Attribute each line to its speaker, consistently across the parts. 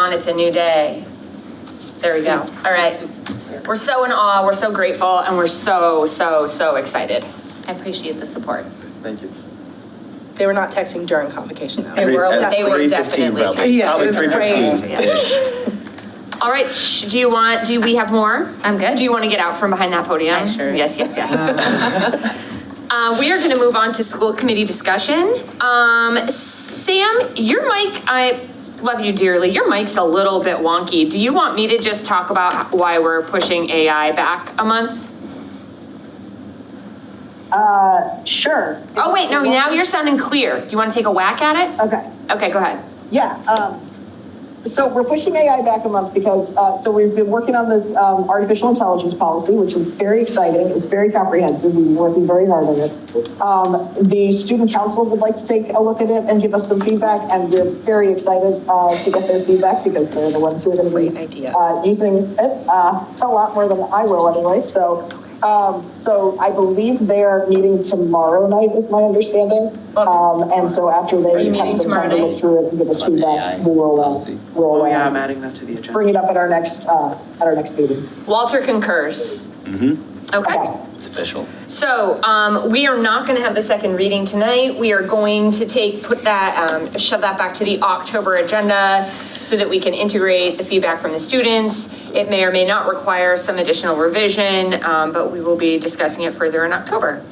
Speaker 1: on, it's a new day. There we go. All right. We're so in awe, we're so grateful, and we're so, so, so excited. I appreciate the support.
Speaker 2: Thank you.
Speaker 3: They were not texting during convocation though.
Speaker 1: They were,
Speaker 2: At
Speaker 1: they were
Speaker 2: 3:15
Speaker 1: definitely.
Speaker 2: uh, probably.
Speaker 1: checking.
Speaker 3: Yeah, it
Speaker 2: Probably
Speaker 3: was
Speaker 2: three fifteen-ish.
Speaker 1: All right, shh, do you want, do we have more?
Speaker 4: I'm good.
Speaker 1: Do you want to get out from behind that podium?
Speaker 4: I sure-
Speaker 1: Yes, yes, yes. Uh, we are going to move on to school committee discussion. Um, Sam, your mic, I love you dearly. Your mic's a little bit wonky. Do you want me to just talk about why we're pushing AI back a month?
Speaker 5: Uh, sure.
Speaker 1: Oh, wait, no, now you're sounding clear. You want to take a whack at it?
Speaker 5: Okay,
Speaker 1: Okay, go ahead.
Speaker 5: yeah, um, so we're pushing AI back a month because, uh, so we've been working on this, um, artificial intelligence policy, which is very exciting, it's very comprehensive, we've been working very hard on it. Um, the student council would like to take a look at it and give us some feedback, and we're very excited, uh, to get their feedback because they're the ones who are gonna be,
Speaker 3: Great idea.
Speaker 5: uh, using it, uh, a lot more than I will anyway, so, um, so I believe they are meeting tomorrow night is my understanding. Um, and so after they
Speaker 1: you
Speaker 5: have
Speaker 1: meeting
Speaker 5: some time
Speaker 1: tomorrow
Speaker 5: to look
Speaker 1: night?
Speaker 5: through it and give us feedback, we will, uh,
Speaker 2: Policy.
Speaker 5: we'll,
Speaker 6: Oh, yeah, I'm
Speaker 5: uh,
Speaker 6: adding that to the agenda.
Speaker 5: bring it up at our next, uh, at our next meeting.
Speaker 1: Walter concurs. Okay.
Speaker 2: It's official.
Speaker 1: So, um, we are not gonna have the second reading tonight. We are going to take, put that, um, shove that back to the October agenda so that we can integrate the feedback from the students. It may or may not require some additional revision, um, but we will be discussing it further in October.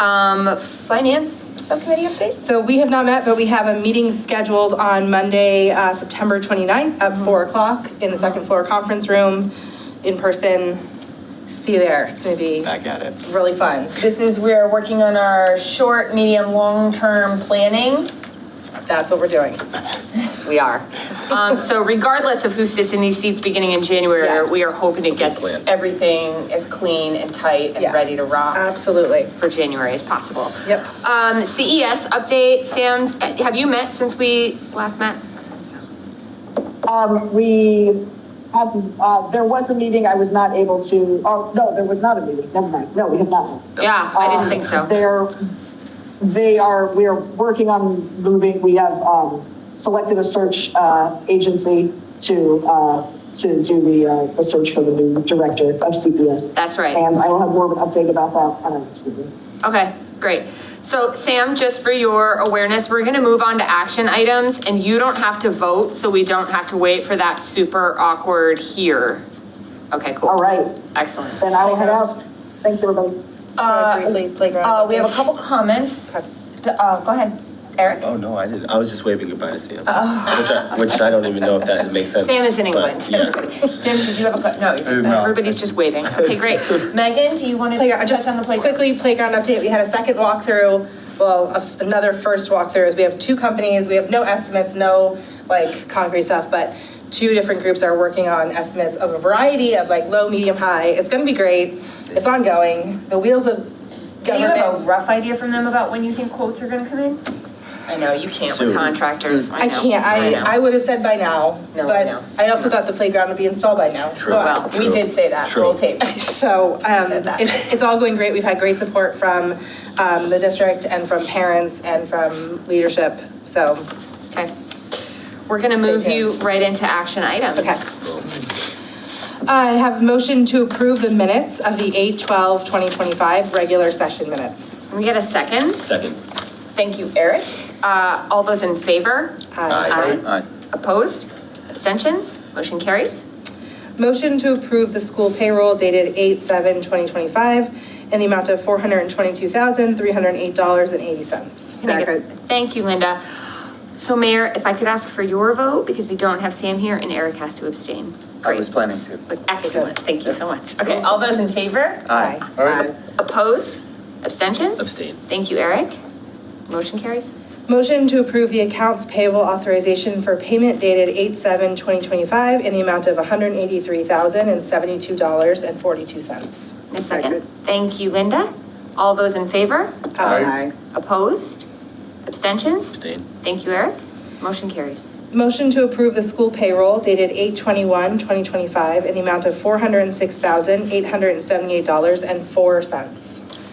Speaker 1: Um, finance subcommittee updates?
Speaker 3: So we have not met, but we have a meeting scheduled on Monday, uh, September 29th
Speaker 1: Mm-hmm.
Speaker 3: at 4 o'clock in the second floor conference room in person. See you there. It's going to be
Speaker 2: Back at it.
Speaker 3: really fun.
Speaker 1: This is, we're working on our short, medium, long-term planning.
Speaker 3: That's what we're doing.
Speaker 1: We are. Um, so regardless of who sits in these seats beginning in January,
Speaker 3: Yes.
Speaker 1: we are hoping to get
Speaker 2: plan.
Speaker 1: everything as clean and tight and
Speaker 3: Yeah.
Speaker 1: ready to rock
Speaker 3: Absolutely.
Speaker 1: for January as possible.
Speaker 3: Yep.
Speaker 1: Um, CES update, Sam, uh, have you met since we last met?
Speaker 5: Um, we have, uh, there was a meeting, I was not able to, oh, no, there was not a meeting, never mind, no, we have not.
Speaker 1: Yeah, I didn't think
Speaker 3: Oh.
Speaker 5: Um,
Speaker 1: so.
Speaker 5: They're, they are, we are working on moving, we have, um, selected a search, uh, agency to, uh, to do the, uh, the search for the new director of CPS.
Speaker 1: That's right.
Speaker 5: And I will have more of an update about that on our next meeting.
Speaker 1: Okay, great. So Sam, just for your awareness, we're gonna move on to action items and you don't have to vote, so we don't have to wait for that super awkward here. Okay, cool.
Speaker 5: All right,
Speaker 3: Oh.
Speaker 1: Excellent.
Speaker 5: then I will head out. Thanks, everybody.
Speaker 3: Briefly, playground.
Speaker 1: Uh, we have a couple comments.
Speaker 3: Okay.
Speaker 1: Uh, go ahead, Eric.
Speaker 2: Oh, no, I didn't. I was just waving goodbye to Sam. Which I, which I don't even know if that makes sense.
Speaker 1: Oh. Sam is in
Speaker 2: but
Speaker 1: England.
Speaker 2: Yeah.
Speaker 1: Tim, did you have a, que- no, you just-
Speaker 2: No.
Speaker 1: everybody's just waiting. Okay, great. Megan, do you want to
Speaker 3: Playground, just
Speaker 1: touch on the playground?
Speaker 3: quickly, playground update, we had a second walkthrough, well, a- another first walkthrough, is we have two companies, we have no estimates, no like concrete stuff, but two different groups are working on estimates of a variety of like low, medium, high, it's gonna be great, it's ongoing, the wheels of
Speaker 1: Do you have a
Speaker 3: government.
Speaker 1: rough idea from them about when you think quotes are going to come in? I know, you can't with
Speaker 2: Soon.
Speaker 1: contractors.
Speaker 3: I
Speaker 1: know,
Speaker 3: can't,
Speaker 1: know.
Speaker 3: I, I would have said by now,
Speaker 1: No, I know.
Speaker 3: but I also thought the playground would be installed by now, so.
Speaker 2: True.
Speaker 3: uh,
Speaker 1: Well, we did say that,
Speaker 2: True.
Speaker 1: roll tape.
Speaker 3: So um,
Speaker 1: Said that.
Speaker 3: it's, it's all going great. We've had great support from um, the district and from parents and from leadership. So
Speaker 1: Okay. We're going to move you right into action items.
Speaker 3: Okay. I have motion to approve the minutes of the 8/12/2025 regular session minutes.
Speaker 1: Can we get a second?
Speaker 2: Second.
Speaker 1: Thank you, Eric. Uh, All those in favor?
Speaker 2: Aye. Aye.
Speaker 1: Opposed? Abstentions? Motion carries?
Speaker 3: Motion to approve the school payroll dated 8/7/2025 in the amount of $422,308.80.
Speaker 1: Can I get- Thank you, Linda. So Mayor, if I could ask for your vote, because we don't have Sam here and Eric has to abstain.
Speaker 7: I was
Speaker 1: Great.
Speaker 7: planning to.
Speaker 1: Excellent, thank you so much. Okay, all those in favor?
Speaker 7: Aye.
Speaker 3: Aye.
Speaker 1: Opposed? Abstentions?
Speaker 2: Abstain.
Speaker 1: Thank you, Eric. Motion carries?
Speaker 3: Motion to approve the accounts payable authorization for payment dated 8/7/2025 in the amount of $183,072.42.
Speaker 1: A second. Thank you, Linda. All those in favor?
Speaker 3: Uh, Aye.
Speaker 1: Opposed? Abstentions?
Speaker 2: Abstain.
Speaker 1: Thank you, Eric. Motion carries.
Speaker 3: Motion to approve the school payroll dated 8/21/2025 in the amount of $406,878.04.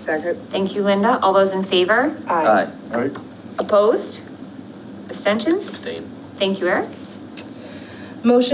Speaker 3: Second.
Speaker 1: Thank you, Linda. All those in favor?
Speaker 3: Aye.
Speaker 2: Aye.
Speaker 1: Opposed? Abstentions?
Speaker 2: Abstain.
Speaker 1: Thank you, Eric.
Speaker 3: Motion